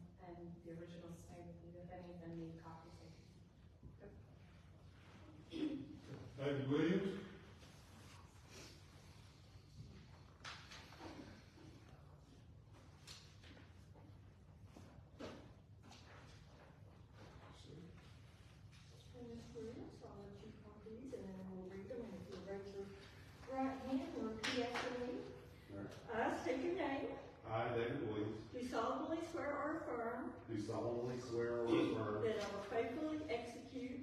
the originals, I believe, if any of them need copies, I can David Williams. And Ms. Williams, I'll let you copy these and then we'll read them. And if you'll raise your right hand and repeat after me. I state your name. I, David Williams, Do solemnly swear or affirm do solemnly swear or affirm that I will faithfully execute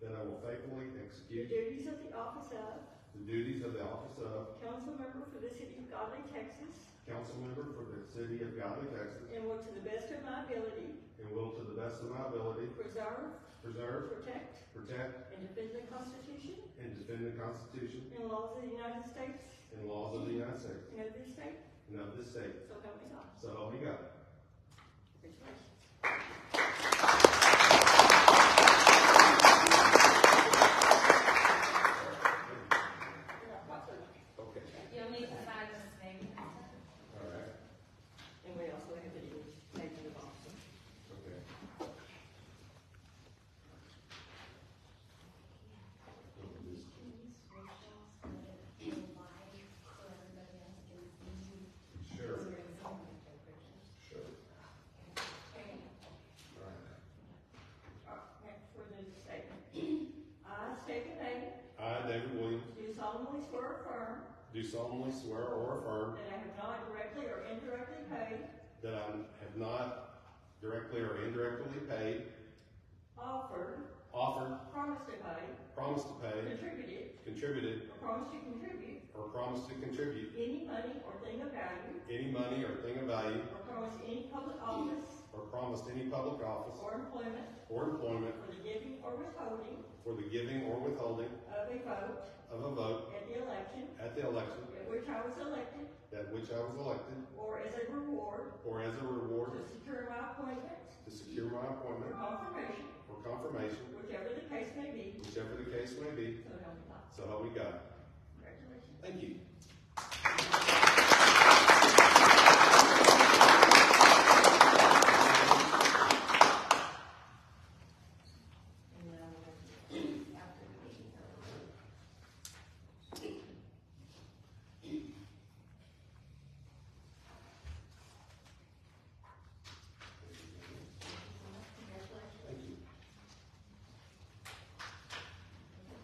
that I will faithfully the execute duties of the office of the duties of the office of council member for the city of Godly, Texas, council member for the city of Godly, Texas, and will to the best of my ability and will to the best of my ability preserve, preserve, protect, protect, and defend the Constitution and defend the Constitution and laws of the United States and laws of the United States and of this state, and of this state. so help me God. So help me God. Congratulations. Okay, You'll need to sign this thing. all right, And we also have it in the box. okay. Sure, sure. All right. Next for the statement. I state your name, I, David Williams, do solemnly swear or affirm do solemnly swear or affirm that I have not directly or indirectly paid, That I have not directly or indirectly paid, offered, offered, promised to pay, promised to pay, contributed, contributed, or promised to contribute or promised to contribute any money or thing of value, any money or thing of value, or promised any public office or promised any public office or employment or employment for the giving or withholding for the giving or withholding of a vote of a vote at the election at the election at which I was elected, at which I was elected, or as a reward or as a reward to secure my appointment to secure my or appointment confirmation, or confirmation, whichever the case may be, whichever the case may be, so help me God. so help me God. Congratulations. Thank you. And then we'll have to- after the meeting, I'll- Thank you.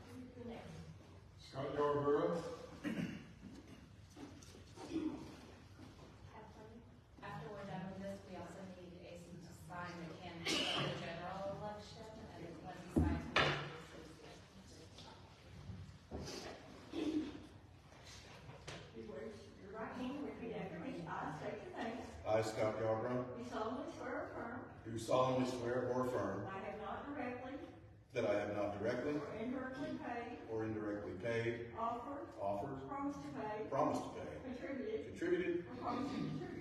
Scott Yarborough. After we're done with this, we also need Ace to sign the candidate for the general election, and then once he signs, we'll do the associate. You raise your right hand, and repeat after me. I state your name. I, Scott Yarborough, You solemnly swear or affirm do solemnly swear or affirm that I have not directly That I have not directly or indirectly paid, or indirectly paid, offered, offered, promised to pay, promised to pay, contributed, contributed,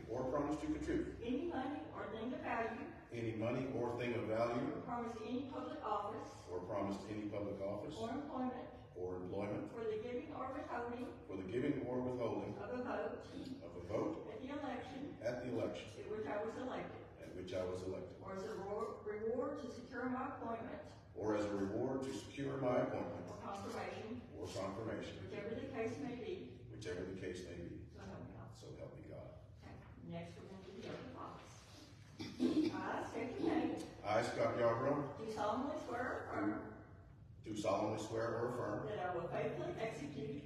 or promised to or promised to contribute contribute any money or thing of value, any money or thing of value, or promised any public office or promised any public office or employment or employment for the giving or withholding for the giving or withholding of a vote of a vote at the election at the election at which I was elected, at which I was elected, or as a reward- reward to secure my appointment or as a reward to secure my appointment or confirmation, or confirmation, whichever the case may be, whichever the case may be. so help So help me me God. God. Next, we're going to do the oath of office. I state your name, I, Scott Yarborough, do solemnly swear or affirm do solemnly swear or affirm that I will faithfully